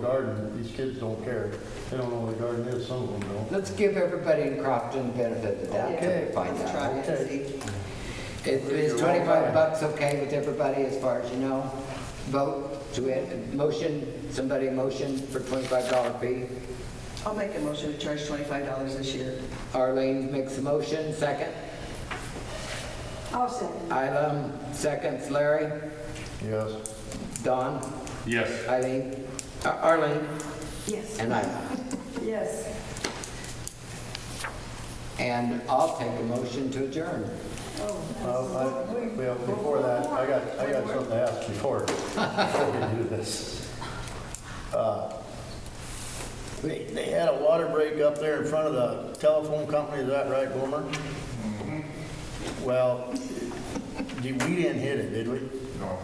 garden, these kids don't care. They don't know what a garden is, some of them don't. Let's give everybody in Crofton the benefit of that Okay. to find Let's try out. it and see. Is is twenty-five bucks okay with everybody as far as you know? Vote to it, motion, somebody motion for twenty-five dollar fee. I'll make a motion to charge twenty-five dollars this year. Arlene makes a motion, second. I'll second. Islam, seconds. Larry, Yes. Don, Yes. Eileen, uh, Arlene, Yes. and Isla. Yes. And I'll take a motion to adjourn. Well, I- well, before that, I got, I got something to ask before, before we do this. Uh, They, they had a water break up there in front of the telephone company, is that right, Boomer? Mm-hmm. Well, did- we didn't hit it, did we? No.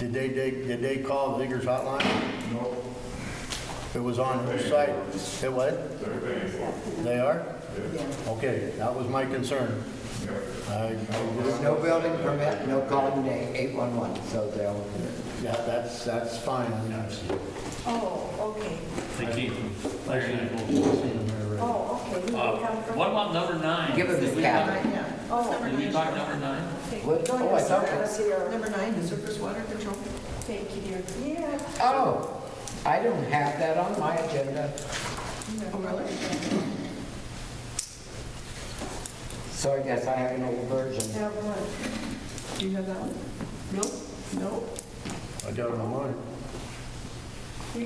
Did they, they, did they call Vigor's hotline? No. It was on the site. It what? They're paying for it. They are? Yeah. Okay, that was my concern. Yeah. I, There's no building permit, no calling eight-one-one, so they'll, yeah, that's, that's fine. I mean, I've seen Oh, okay. They keep them. I've seen it. I've seen it there already. Oh, okay. You Uh, can come from- What about number nine? Give it to Did we Kathy. Right, yeah. Oh, Did we talk number nine? what, go oh, I ahead, thought, sir. I that- was here. Number nine, the surface water control. Thank you, dear. Yeah. oh, I don't have that on my agenda. Oh, really? So I guess I have an old version. Have one. Do you have that one? Nope. Nope. I got it on mine. You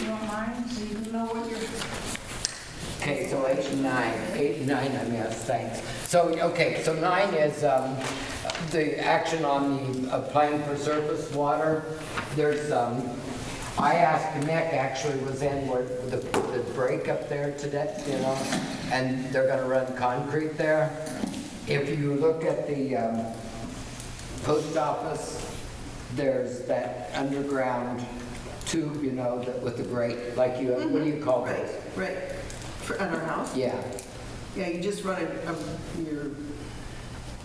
you don't mind? So you know what you're. Okay, so eight and nine, eight and nine, I missed, thanks. So, okay, so nine is, um, the action on the applying for surface water. There's, um, I asked Nick, actually was in where the, the break up there today, you know, and they're gonna run concrete there. If you look at the, um, post office, there's that underground tube, you know, that with the grate, like you, what do you call Right, those? right. For, at our house? Yeah, Yeah, you just run it, um, your,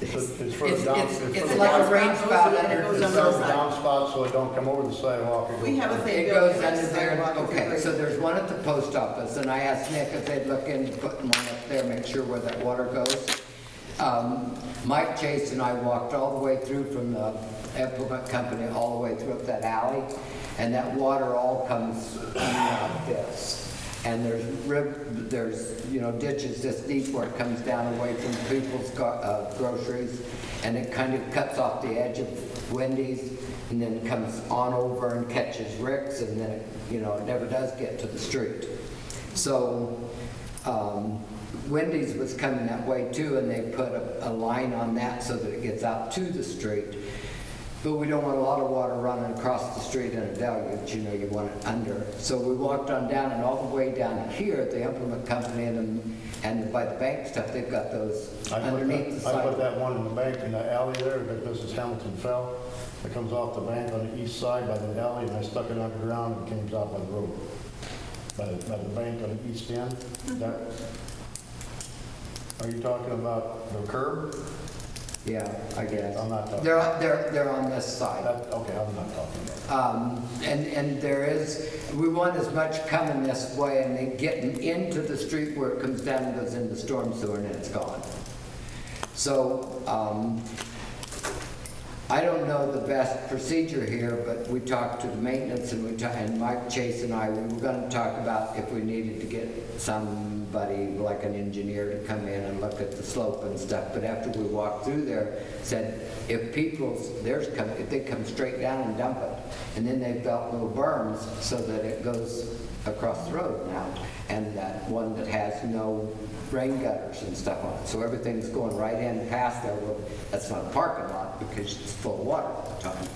It's it's for it's, the down. it's, it's a like a downspout, rain goes spout in and under goes It's the for under the the sun. side. downspot, so it don't come over the sidewalk. It we goes- have a thing. It built goes next under to there, sidewalk, it's okay, right- so there's one at the post office, and I asked Nick if they'd look into putting one up there, make sure where that water goes. Um, Mike Chase and I walked all the way through from the implement company, all the way through up that alley, and that water all comes out this. And there's rib, there's, you know, ditches this deep where it comes down away from people's go- uh, groceries, and it kind of cuts off the edge of Wendy's, and then comes on over and catches Rick's, and then, it you know, it never does get to the street. So, um, Wendy's was coming that way too, and they put a, a line on that so that it gets out to the street. But we don't want a lot of water running across the street in a deluge, you know, you want it under. So we walked on down and all the way down here at the implement company and, and by the bank stuff, they've got those I put underneath the that- I put sidewalk. that one in the bank in the alley there, that this is Hamilton Fell. It comes off the bank on the east side by the alley, and I stuck it underground and it came out by the road. By, the- by the bank on the east end, that. Are you talking about the curb? Yeah, I guess. I'm not talking, They're, on- they're, they're on this side. that, okay, I'm not talking about. Um, And, and there is, we want as much coming this way and then getting into the street where it comes down and goes into storm sewer and it's gone. So um, I don't know the best procedure here, but we talked to the maintenance and we, ta- and Mike Chase and I, we were gonna talk about if we needed to get somebody, like an engineer, to come in and look at the slope and stuff. But after we walked through there, said if people's, theirs come, if they come straight down and dump it, and then they built little berms so that it goes across the road now. And that one that has no rain gutters and stuff on it. So everything's going right in past there. Well, That's not a parking lot because it's full of water all the time.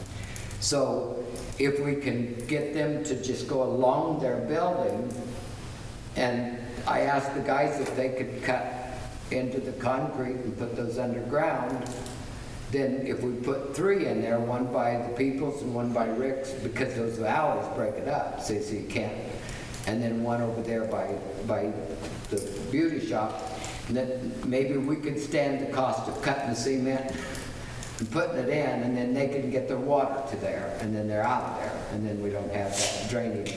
So if we can get them to just go along their building, and I asked the guys if they could cut into the concrete and put those underground, then if we put three in there, one by the peoples and one by Rick's, because those alleys break it up, see, so you can't. And then one over there by, by the beauty shop, and then maybe we could stand the cost of cutting cement and putting it in, and then they can get their water to there, and then they're out of there, and then we don't have that drainage